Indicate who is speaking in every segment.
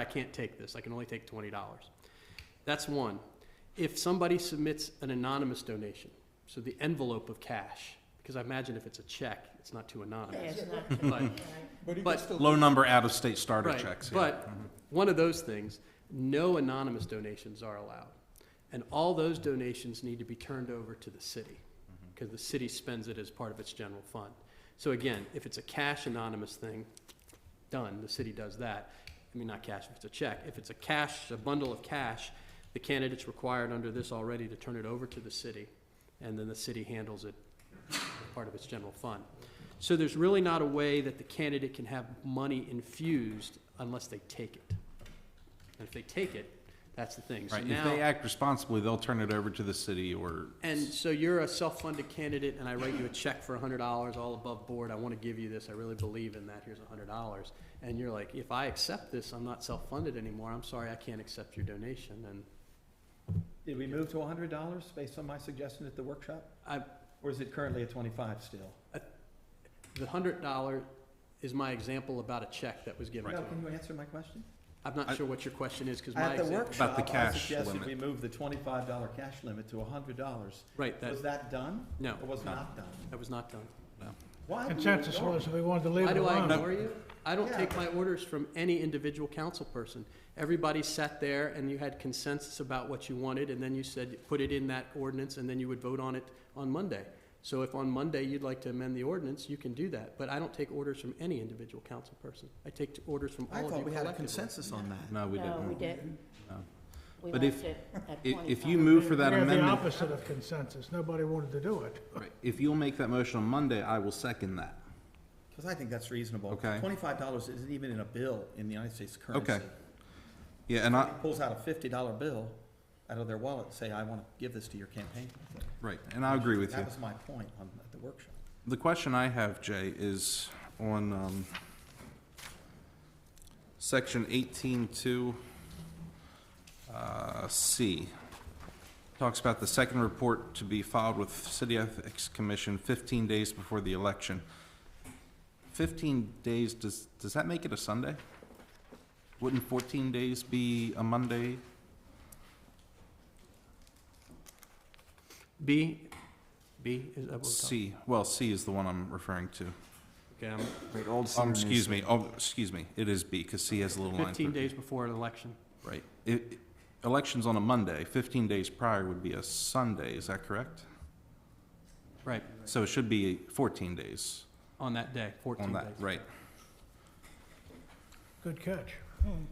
Speaker 1: I can't take this, I can only take twenty dollars. That's one. If somebody submits an anonymous donation, so the envelope of cash, because I imagine if it's a check, it's not too anonymous.
Speaker 2: Yes, not,
Speaker 1: But
Speaker 3: But you
Speaker 1: But-
Speaker 3: can still.
Speaker 4: Low number out-of-state starter
Speaker 1: Right,
Speaker 4: checks. yeah. Mm-hmm.
Speaker 1: but one of those things, no anonymous donations are allowed. And all those donations need to be turned over to the city,
Speaker 4: Mm-hmm.
Speaker 1: because the city spends it as part of its general fund. So again, if it's a cash anonymous thing, done, the city does that. I mean, not cash, if it's a check. If it's a cash, a bundle of cash, the candidate's required under this already to turn it over to the city, and then the city handles it as part of its general fund. So there's really not a way that the candidate can have money infused unless they take it. And if they take it, that's the thing. So
Speaker 4: Right, if
Speaker 1: now-
Speaker 4: they act responsibly, they'll turn it over to the city or.
Speaker 1: and so you're a self-funded candidate, and I write you a check for hundred dollars, all above board, I wanna give you this, I really believe in that, here's hundred dollars. And you're like, if I accept this, I'm not self-funded anymore, I'm sorry, I can't accept your donation, and
Speaker 3: Did we move to hundred dollars based on my suggestion at the workshop?
Speaker 1: I,
Speaker 3: Or is it currently at twenty-five still?
Speaker 1: the hundred dollar is my example about a check that was given to
Speaker 3: No,
Speaker 1: me.
Speaker 3: can you answer my question?
Speaker 1: I'm not
Speaker 4: I-
Speaker 1: sure what your question is, cause my
Speaker 3: At the
Speaker 1: example,
Speaker 3: workshop, I
Speaker 4: cash
Speaker 3: suggested
Speaker 4: limit.
Speaker 3: we move the twenty-five dollar cash limit to hundred dollars.
Speaker 1: right, that,
Speaker 3: Was that done?
Speaker 1: No.
Speaker 3: Or was
Speaker 4: No.
Speaker 3: not done?
Speaker 1: that was not done.
Speaker 3: Why? do we
Speaker 5: Consensus
Speaker 3: ignore
Speaker 5: was, we wanted to leave
Speaker 1: Why
Speaker 5: it
Speaker 1: do I
Speaker 5: alone.
Speaker 1: ignore you? I don't
Speaker 3: Yeah.
Speaker 1: take my orders from any individual council person. Everybody sat there and you had consensus about what you wanted, and then you said, put it in that ordinance, and then you would vote on it on Monday. So if on Monday you'd like to amend the ordinance, you can do that, but I don't take orders from any individual council person. I take orders from all
Speaker 3: I
Speaker 1: of you
Speaker 3: thought we had a
Speaker 1: collectively.
Speaker 3: consensus on that.
Speaker 4: No, we didn't.
Speaker 2: no, we didn't.
Speaker 4: No.
Speaker 2: We
Speaker 4: But
Speaker 2: left
Speaker 4: if-
Speaker 2: it at
Speaker 4: If,
Speaker 2: twenty-five.
Speaker 4: if you move for that
Speaker 5: We're the
Speaker 4: amendment,
Speaker 5: opposite of consensus, nobody wanted to do it.
Speaker 4: right, if you'll make that motion on Monday, I will second that.
Speaker 3: Because I think that's reasonable.
Speaker 4: Okay.
Speaker 3: Twenty-five dollars isn't even in a bill in the United States currency.
Speaker 4: Okay. Yeah, and I,
Speaker 3: Somebody Pulls out a fifty-dollar bill out of their wallet, and say, I want to give this to your campaign.
Speaker 4: right, and I agree with you.
Speaker 3: That was my point on, at the workshop.
Speaker 4: The question I have, Jay, is on, um, section eighteen two, uh, C. Talks about the second report to be filed with City Ethics Commission fifteen days before the election. Fifteen days, does, does that make it a Sunday? Wouldn't fourteen days be a Monday?
Speaker 1: B, B, is that what we're talking?
Speaker 4: C, well, C is the one I'm referring to.
Speaker 1: Okay, I'm-
Speaker 6: Wait, Old
Speaker 4: Um,
Speaker 6: Center, New
Speaker 4: excuse
Speaker 6: Center.
Speaker 4: me, oh, excuse me, it is B, because C has a little line through
Speaker 1: Fifteen
Speaker 4: it.
Speaker 1: days before an election.
Speaker 4: Right. I i- election's on a Monday, 15 days prior would be a Sunday, is that correct?
Speaker 1: Right,
Speaker 4: So it should be 14 days
Speaker 1: on that day, fourteen
Speaker 4: on
Speaker 1: days.
Speaker 4: that, right?
Speaker 5: Good catch.
Speaker 1: Hmm.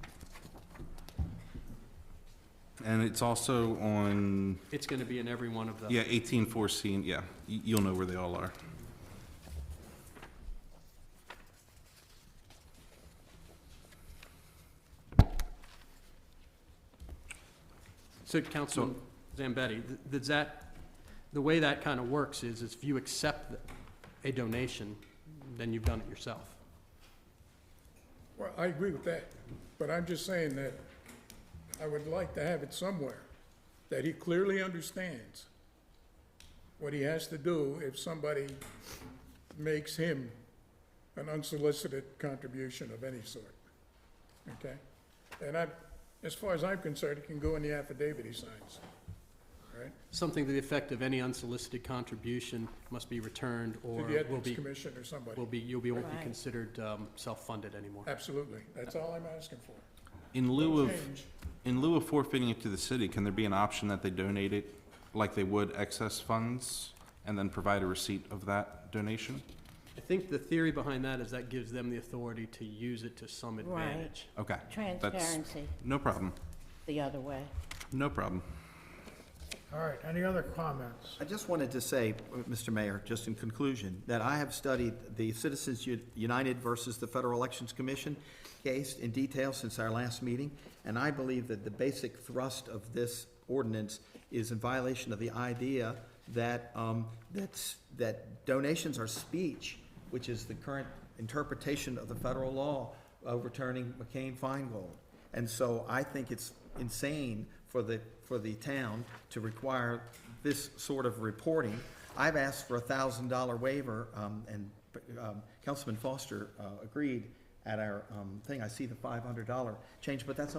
Speaker 4: And it's also on,
Speaker 1: It's gonna be in every one of those.
Speaker 4: yeah, 18, 14, yeah, y- you'll know where they all are.
Speaker 1: So Councilman Zambetti, th- does that, the way that kind of works is, is if you accept a donation, then you've done it yourself.
Speaker 7: Well, I agree with that, but I'm just saying that I would like to have it somewhere, that he clearly understands what he has to do if somebody makes him an unsolicited contribution of any sort, okay? And I, as far as I'm concerned, it can go in the affidavit he signs, all right?
Speaker 1: Something to the effect of any unsolicited contribution must be returned or
Speaker 7: To the
Speaker 1: will
Speaker 7: Ethics
Speaker 1: be,
Speaker 7: Commission or somebody,
Speaker 1: will be, you'll be, won't be
Speaker 2: Right.
Speaker 1: considered um, self-funded anymore.
Speaker 7: Uh, absolutely, that's all I'm asking for.
Speaker 4: In lieu of,
Speaker 7: Change.
Speaker 4: in lieu of forfeiting it to the city, can there be an option that they donate it like they would excess funds and then provide a receipt of that donation?
Speaker 1: I think the theory behind that is that gives them the authority to use it to some
Speaker 2: Right.
Speaker 1: advantage.
Speaker 4: Okay,
Speaker 2: Transparency
Speaker 4: no problem,
Speaker 2: the other way.
Speaker 4: no problem.
Speaker 5: All right, any other comments?
Speaker 3: I just wanted to say, uh, Mr. Mayor, just in conclusion, that I have studied the Citizens U- United versus the Federal Elections Commission case in detail since our last meeting, and I believe that the basic thrust of this ordinance is in violation of the idea that, um, that's, that donations are speech, which is the current interpretation of the federal law overturning McCain-Feingold. And so I think it's insane for the, for the town to require this sort of reporting. I've asked for a thousand dollar waiver, um, and, um, Councilman Foster, uh, agreed at our um, thing, I see the $500 change, but that's